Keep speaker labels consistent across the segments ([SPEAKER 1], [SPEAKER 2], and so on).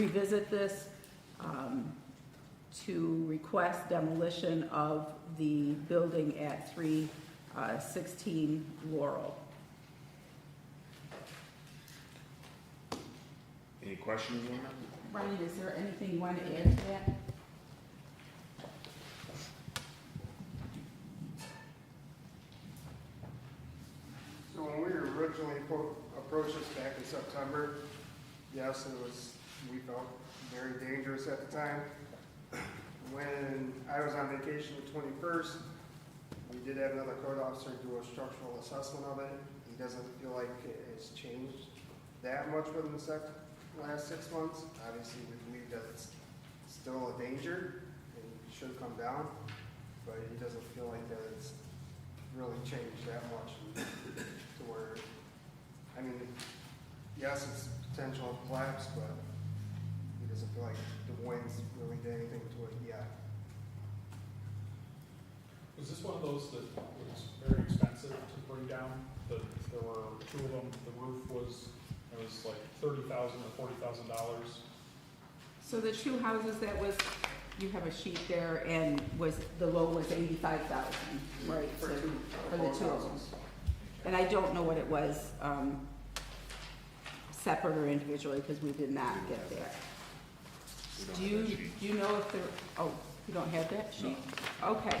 [SPEAKER 1] revisit this um, to request demolition of the building at 316 Laurel.
[SPEAKER 2] Any questions on that?
[SPEAKER 1] Brian, is there anything you want to add to that?
[SPEAKER 3] So when we originally appro- approached this back in September, yes, it was, we felt very dangerous at the time. When I was on vacation the twenty-first, we did have another code officer do a structural assessment of it. He doesn't feel like it has changed that much within the sec, last six months. Obviously, we believe that it's still a danger and should come down, but he doesn't feel like that it's really changed that much to where, I mean, yes, it's potential collapse, but he doesn't feel like the winds really did anything to it yet.
[SPEAKER 4] Was this one of those that was very expensive to bring down? That there were two of them, the roof was, it was like thirty thousand or forty thousand dollars?
[SPEAKER 1] So the two houses that was, you have a sheet there, and was, the low was 85,000, right?
[SPEAKER 3] For
[SPEAKER 1] so-
[SPEAKER 3] two,
[SPEAKER 1] for the
[SPEAKER 3] both
[SPEAKER 1] two of them.
[SPEAKER 3] houses.
[SPEAKER 1] And I don't know what it was, um, separate or individually, because we did not get that.
[SPEAKER 2] We don't
[SPEAKER 1] Do
[SPEAKER 2] have
[SPEAKER 1] you,
[SPEAKER 2] that
[SPEAKER 1] do
[SPEAKER 2] sheet.
[SPEAKER 1] you know if there, oh, you don't have that sheet?
[SPEAKER 2] No.
[SPEAKER 1] Okay,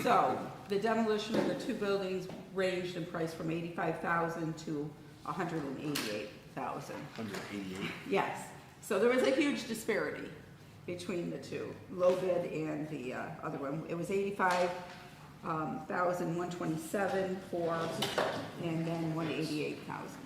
[SPEAKER 1] so the demolition of the two buildings ranged in price from eighty-five thousand to a hundred and eighty-eight thousand.
[SPEAKER 2] Hundred eighty-eight.
[SPEAKER 1] Yes, so there was a huge disparity between the two, low bid and the uh, other one. It was eighty-five um, thousand, one twenty-seven for, and then one eighty-eight thousand.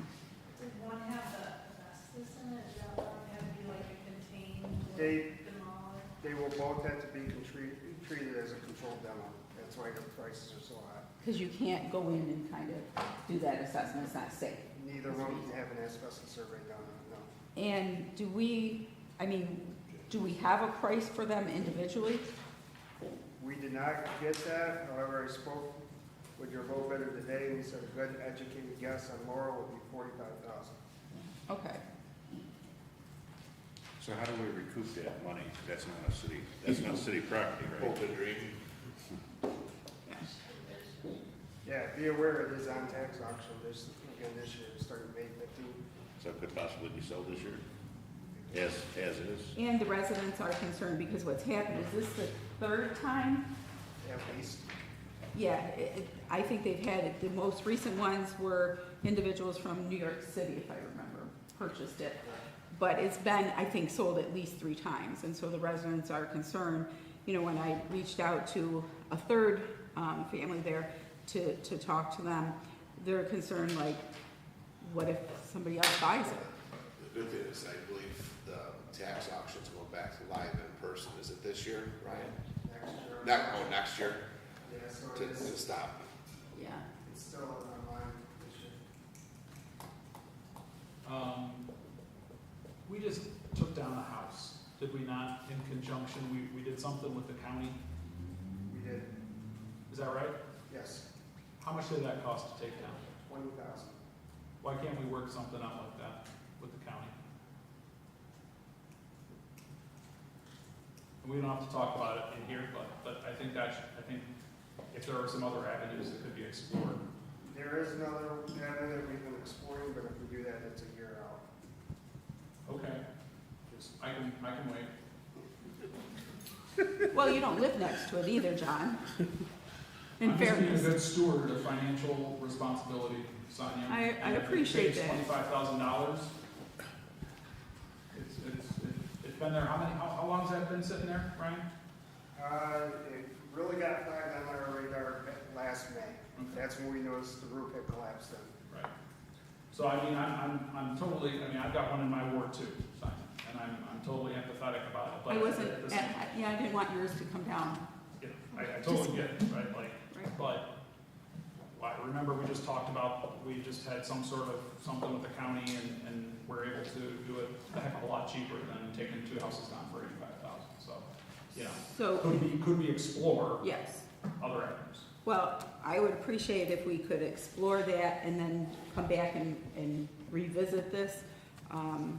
[SPEAKER 5] Did one have the asbestos in it, did the other one have to be like a contained,
[SPEAKER 3] They,
[SPEAKER 5] demolished?
[SPEAKER 3] they will both have to be contri- treated as a controlled demo. That's why the prices are so high.
[SPEAKER 1] Because you can't go in and kind of do that assessment, it's not safe.
[SPEAKER 3] Neither one can have an asbestos survey done, no.
[SPEAKER 1] And do we, I mean, do we have a price for them individually?
[SPEAKER 3] We did not get that, however, I spoke with your vote bidder today, and he said a good educated guess on Laurel would be forty-five thousand.
[SPEAKER 1] Okay,
[SPEAKER 2] So how do we recoup that money? That's not a city, that's not city property, right?
[SPEAKER 3] Yeah, be aware it is on tax auction this, again this year, starting May fifteenth.
[SPEAKER 2] So it could possibly be sold this year? As, as is?
[SPEAKER 1] and the residents are concerned because what's happened, is this the third time
[SPEAKER 3] At least,
[SPEAKER 1] Yeah, it, it- I think they've had, it. the most recent ones were individuals from New York City, if I remember, purchased it. But it's been, I think, sold at least three times, and so the residents are concerned. You know, when I reached out to a third, um, family there to, to talk to them, they're concerned, like, what if somebody else buys it?
[SPEAKER 6] The good thing is, I believe the tax auctions go back live in person, is it this year, Ryan?
[SPEAKER 3] next year.
[SPEAKER 6] Not, oh, next year,
[SPEAKER 3] Yeah, so
[SPEAKER 6] to,
[SPEAKER 3] it
[SPEAKER 6] to
[SPEAKER 3] is,
[SPEAKER 6] stop.
[SPEAKER 1] Yeah.
[SPEAKER 3] it's still online this year.
[SPEAKER 4] Um, we just took down a house, did we not, in conjunction, we, we did something with the county,
[SPEAKER 3] We did,
[SPEAKER 4] is that right?
[SPEAKER 3] yes,
[SPEAKER 4] How much did that cost to take down?
[SPEAKER 3] twenty thousand.
[SPEAKER 4] Why can't we work something out like that with the county? And We don't have to talk about it in here, but, but I think that, should- I think if there are some other avenues that could be explored.
[SPEAKER 3] There is another avenue that we've been exploring, but if we do that, it's a year out.
[SPEAKER 4] Okay, just, I can, I can wait.
[SPEAKER 1] Well, you don't live next to it either, John. In
[SPEAKER 4] I'm just being a
[SPEAKER 1] fairness,
[SPEAKER 4] good steward of financial responsibility, Sonia.
[SPEAKER 1] I- I
[SPEAKER 4] And if it
[SPEAKER 1] appreciate
[SPEAKER 4] takes
[SPEAKER 1] that.
[SPEAKER 4] Twenty-five thousand dollars. It's, it's, it's been there, how many, how, how long's that been sitting there, Brian?
[SPEAKER 3] Uh, it really got flagged on our radar last May.
[SPEAKER 4] Okay.
[SPEAKER 3] That's when we noticed the roof had collapsed then.
[SPEAKER 4] Right. So I mean, I'm, I'm, I'm totally, I mean, I've got one in my ward too, Simon, and I'm, I'm totally empathetic about it, but.
[SPEAKER 1] I wasn't,
[SPEAKER 4] at the same-
[SPEAKER 1] yeah, I didn't want yours to come down.
[SPEAKER 4] yeah, I, I totally get it, right, like,
[SPEAKER 1] Right.
[SPEAKER 4] but, well, I remember we just talked about, we just had some sort of, something with the county and, and we're able to do it a heck of a lot cheaper than taking two houses down for eighty-five thousand, so, you know,
[SPEAKER 1] So,
[SPEAKER 4] could we, could we explore
[SPEAKER 1] yes,
[SPEAKER 4] other avenues?
[SPEAKER 1] well, I would appreciate if we could explore that and then come back and, and revisit this. Um,